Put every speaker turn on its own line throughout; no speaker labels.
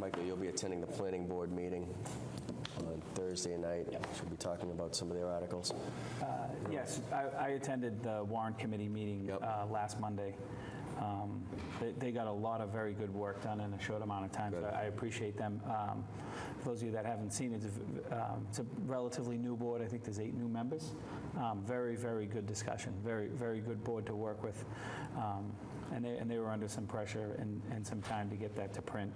Michael, you'll be attending the planning board meeting on Thursday night. Should be talking about some of their articles.
Uh, Yes, I I attended the warrant committee meeting
Yep.
uh, last Monday. Um, they- They got a lot of very good work done in a short amount of time, so
Good.
I appreciate them. Um, For those of you that haven't seen it, it's a- um, it's a relatively new board, I think there's eight new members. Um, Very, very good discussion, very, very good board to work with. Um, And they and they were under some pressure and and some time to get that to print.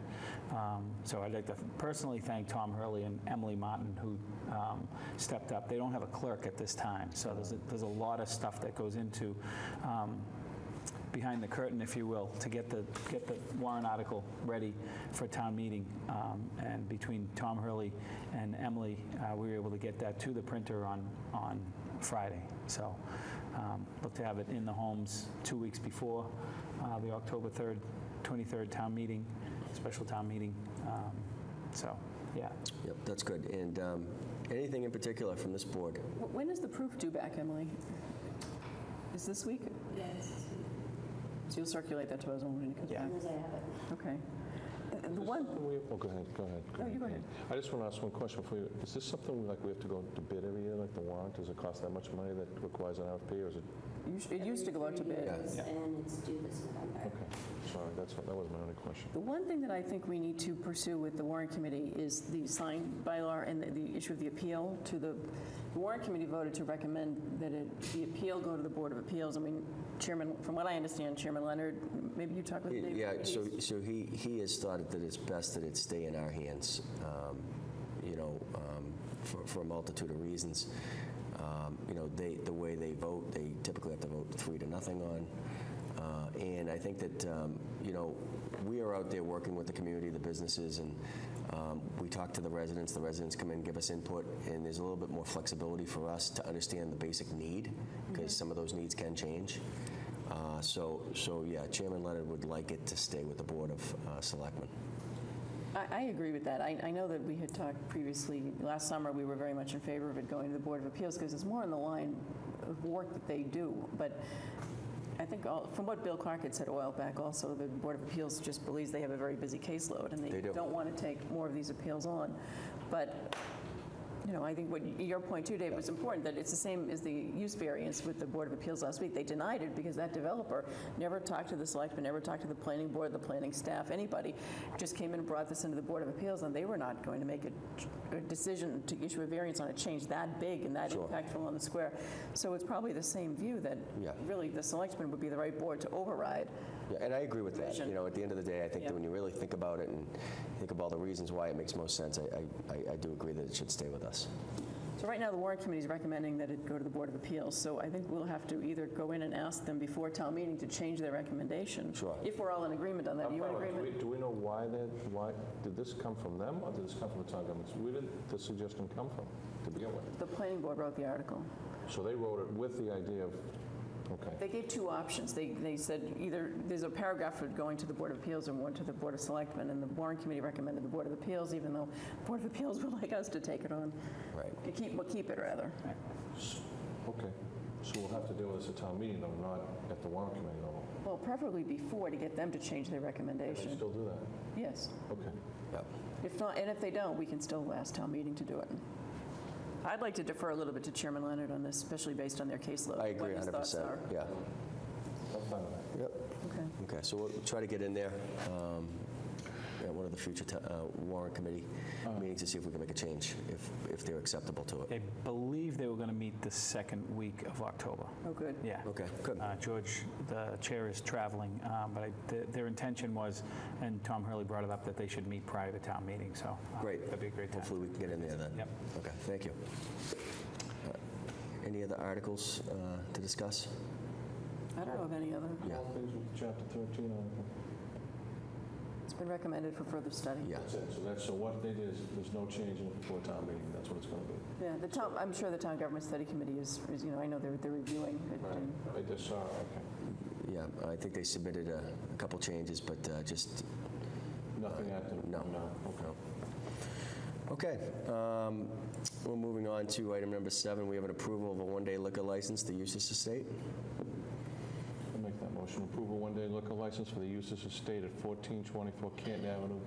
Um, So I'd like to personally thank Tom Hurley and Emily Martin, who um, stepped up. They don't have a clerk at this time, so there's a- there's a lot of stuff that goes into um, behind the curtain, if you will, to get the, get the warrant article ready for town meeting. Um, And between Tom Hurley and Emily, uh, we were able to get that to the printer on, on Friday. So um, look to have it in the homes two weeks before uh, the October 3rd, 23rd town meeting, special town meeting. Um, So, yeah.
Yep, that's good. And um, anything in particular from this board?
Wh- When is the proof due back, Emily? Is this week?
Yes,
So you'll circulate that to us when it comes
Yeah.
back?
as I have it.
Okay. And- and The one,
Well, go ahead, go ahead.
No, you go ahead.
I just want to ask one question for you. Is this something like we have to go to bid every year, like the warrant? Does it cost that much money that requires an RFP, or is it,
you sh- it used to go out to
Every three
bid.
years, And it's due this November.
okay, sorry, that's, that was my only question.
The one thing that I think we need to pursue with the warrant committee is the sign bylaw and the- the issue of the appeal to the, the warrant committee voted to recommend that it, the appeal go to the Board of Appeals. I mean, Chairman, from what I understand, Chairman Leonard, m- maybe you talked with Dave?
Yeah, so,
He's-
so he, he has thought that it's best that it stay in our hands, um, you know, um, for, for a multitude of reasons. Um, You know, they, the way they vote, they typically have to vote three to nothing on. Uh, And I think that, um, you know, we are out there working with the community, the businesses, and um, we talk to the residents, the residents come in, give us input, and there's a little bit more flexibility for us to understand the basic need, because some of those needs can change. Uh, So, so yeah, Chairman Leonard would like it to stay with the Board of uh, Selectmen.
I, I agree with that. I, I know that we had talked previously, last summer, we were very much in favor of it going to the Board of Appeals because it's more in the line of work that they do. But I think, all- from what Bill Clark had said a while back also, the Board of Appeals just believes they have a very busy caseload and
They
they
do.
don't want to take more of these appeals on. But, you know, I think what, your point too, Dave, was important, that it's the same as the use variance with the Board of Appeals last week. They denied it because that developer never talked to the selectmen, never talked to the planning board, the planning staff, anybody. Just came in and brought this into the Board of Appeals, and they were not going to make a ch- a decision to issue a variance on a change that big and that impactful on the square. So it's probably the same view that
Yeah.
really the selectmen would be the right board to override.
Yeah, And I agree with that. You know, at the end of the day, I think that
Yeah.
when you really think about it and think of all the reasons why it makes most sense, I- I, I, I do agree that it should stay with us.
So right now, the warrant committee is recommending that it go to the Board of Appeals, so I think we'll have to either go in and ask them before town meeting to change their recommendation.
Sure.
If we're all in agreement on that, are you in
Do we,
agreement?
do we know why that, why, did this come from them, or did this come from the town government? Where did the suggestion come from, to begin with?
The planning board wrote the article.
So they wrote it with the idea of, okay.
They gave two options. They, they said either, there's a paragraph for going to the Board of Appeals and one to the Board of Selectmen, and the warrant committee recommended the Board of Appeals, even though the Board of Appeals would like us to take it on,
Right.
to keep, well, keep it, rather.
Okay, so we'll have to deal with this at town meeting, though, not at the warrant committee level.
Well, preferably before, to get them to change their
They
recommendation.
still do that?
Yes.
Okay.
Yep.
If not, and if they don't, we can still ask town meeting to do it. I'd like to defer a little bit to Chairman Leonard on this, especially based on their caseload.
I agree
what his thoughts
100%.
are.
Yeah.
I'm fine with that.
Yep.
Okay.
Okay, so we'll try to get in there um, at one of the future t- uh, warrant committee meetings to see if we can make a change, if, if they're acceptable to it.
They believe they were going to meet the second week of October.
Oh, good.
Yeah.
Okay, good.
Uh, George, the chair is traveling, um, but I- th- their intention was, and Tom Hurley brought it up, that they should meet prior to town meeting, so. uh,
Great.
That'd be a great time.
Hopefully, we can get in there then.
Yep.
Okay, thank you. Uh, Any other articles uh, to discuss?
I don't know of any other.
Yeah.
All things with chapter 13 on.
It's been recommended for further study.
Yeah.
That's it, so that's, so what they did is, there's no change in it before town meeting, that's what it's going to be.
Yeah, the town, I'm sure the town government study committee is, is, you know, I know they're, they're reviewing. it, and-
I just saw, okay.
Yeah, I think they submitted a a couple changes, but uh, just,
Nothing at the,
No.
no, okay.
okay. um, We're moving on to item number seven. We have an approval of a one-day liquor license, the Eustace Estate.
I'll make that motion. Approval one-day liquor license for the Eustace Estate at 1424 Canton Avenue